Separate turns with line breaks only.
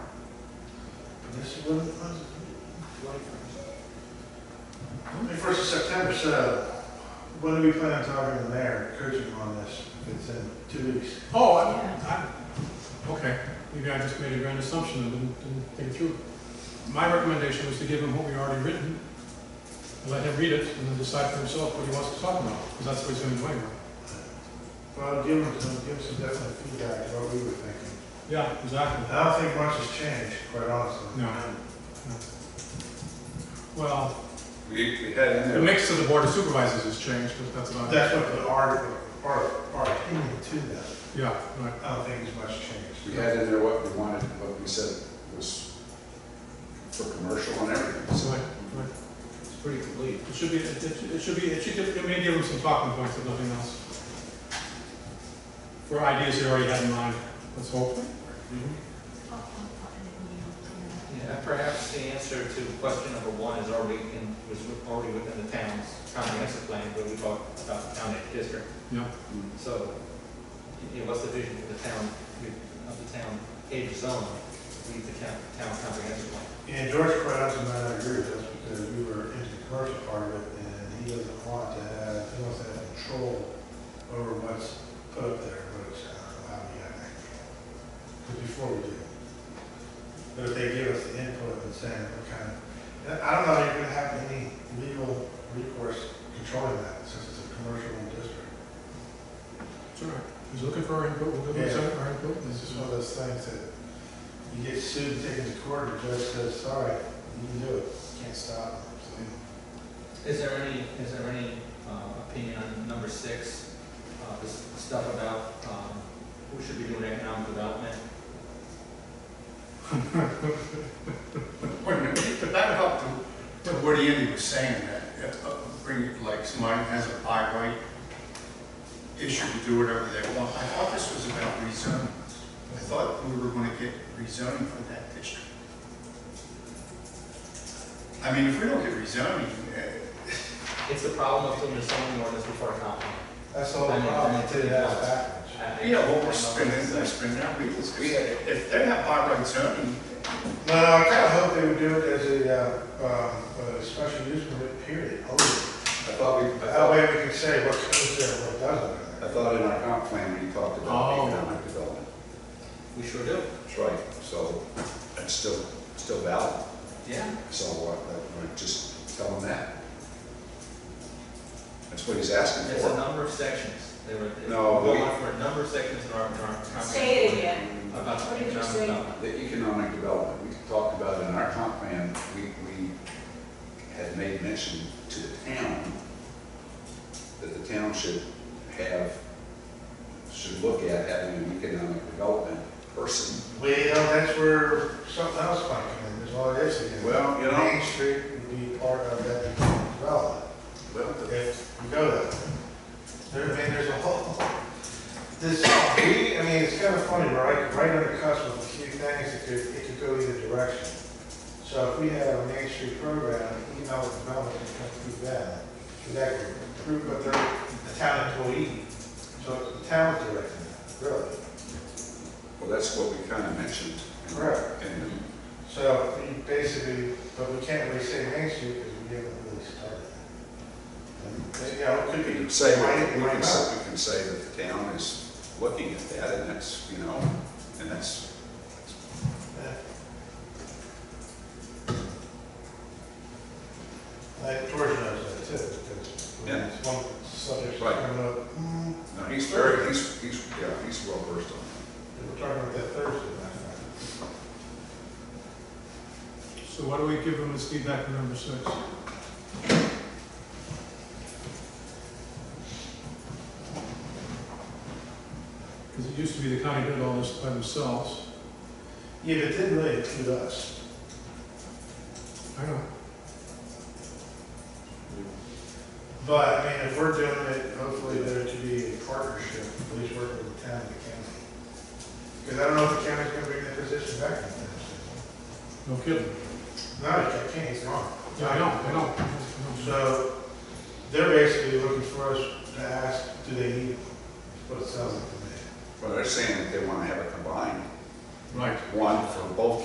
This is what it was? Twenty-first of September, so when do we plan on talking to the mayor, coaching on this? If it's in two weeks.
Oh, I, I, okay, maybe I just made a grand assumption and didn't, didn't think it through. My recommendation was to give him what we already written, and let him read it, and then decide for himself what he wants to talk about, because that's what he's gonna do anyway.
Well, give him, some- give him some definite feedback, is what we were thinking.
Yeah, exactly.
I don't think much has changed, quite honestly.
No. Well,
We, we had in
the
there,
mix of the board of supervisors has changed, but that's about it.
That's what the article, our, our opinion to that,
Yeah, right.
I don't think there's much changed.
we had in there what we wanted, what we said was for commercial and everything.
So,
So
like, right.
it's pretty complete.
It should be, it it- it should be, it should, give- it may give him some talking points, if nothing else. For ideas he already had in mind, let's hope.
Yeah, perhaps the answer to question number one is already in, was already within the town's comprehensive plan, where we talked about the town edge district.
Yeah.
So, you know, what's the vision for the town, of the town age zone, lead the town, town comprehensive plan?
And George quite honestly might not agree with us because we were into the commercial part of it and he doesn't want to have, he wants to have control over what's put up there, which I don't know how we have that control. Because before we do. But if they give us the input and saying what kind of, and I don't know if you're gonna have any legal recourse controlling that since it's a commercial district.
It's all right. He's looking for our input, we'll give him our input.
It's just one of those things that you get sued, and taken to court, and the judge says, sorry, you can do it, can't stop. them." So,
Is there any, is there any uh, opinion on number six, uh, this stuff about um, who should be doing economic development?
But that helped, him. But Woody Indy was saying that, if, uh, bring, it like, somebody has a buy right issue to do whatever they want. I thought this was about rezoning. I thought we were gonna get rezoning for that district. I mean, if we don't get rezoning, eh,
It's the problem of doing the zoning ordinance before a comp.
That's all the problem, they did that backwards.
Yeah, well, we're spending, we're spending our wheels. If they have by right zoning,
No, no, uh, I kind of hope they would do it as a, uh, um, a special use permit, period, only.
I thought we,
That way we can say what comes there, what
I
doesn't.
thought in our comp plan, when you talked about
Oh.
economic development.
We sure do.
That's right. So it's still, still valid.
Yeah.
So what, that- we're just tell them that. That's what he's asking
It's a
for.
number of sections. They were, they
No,
were
we-
going for a number of sections in our, in our. comp.
Say it again.
About
What did you
economic
say?
development.
The economic development, we talked about in our comp plan, we, we had made mention to the town that the town should have, should look at having an economic development person
Well, that's where something else might come in, is all it is again.
Well, you know-
Main Street would be part of that economic development.
Well, the-
if we go there. There, I mean, there's a whole, this, we, I mean, it's kind of funny, we're right, right on the cusp of a few things that could, it could go either direction. So if we have a Main Street program, economic development can come through that, because that could improve what they're, the town employee. So the town is directing that, really.
well, that's what we kind of mentioned. in-
Correct.
in-
So we basically, but we can't really say Main Street because we haven't really started. And, You know, it could
We
be.
can say,
Right,
that- we
right
can
now.
say, we can say that the town is looking at that, and that's, you know, and that's,
Like George knows that too, because when
Yeah.
it's one subject
Right.
coming up, mm,
no, he's very, he's, he's, yeah, he's well versed on that.
we're talking about that Thursday night.
So why do we give him his feedback on number six? Because it used to be the county did all this by themselves.
Yeah, but it didn't really include us.
I know.
But I mean, if we're doing it, hopefully there to be a partnership, at least working with the town and the county. Because I don't know if the county's gonna bring that position back in the
No kidding.
town. No, the county's gone.
Yeah, I know, I know. I know.
So they're basically looking for us to ask, do they need what it sounds like to me?
Well, they're saying that they want to have it combined,
Right.
one for both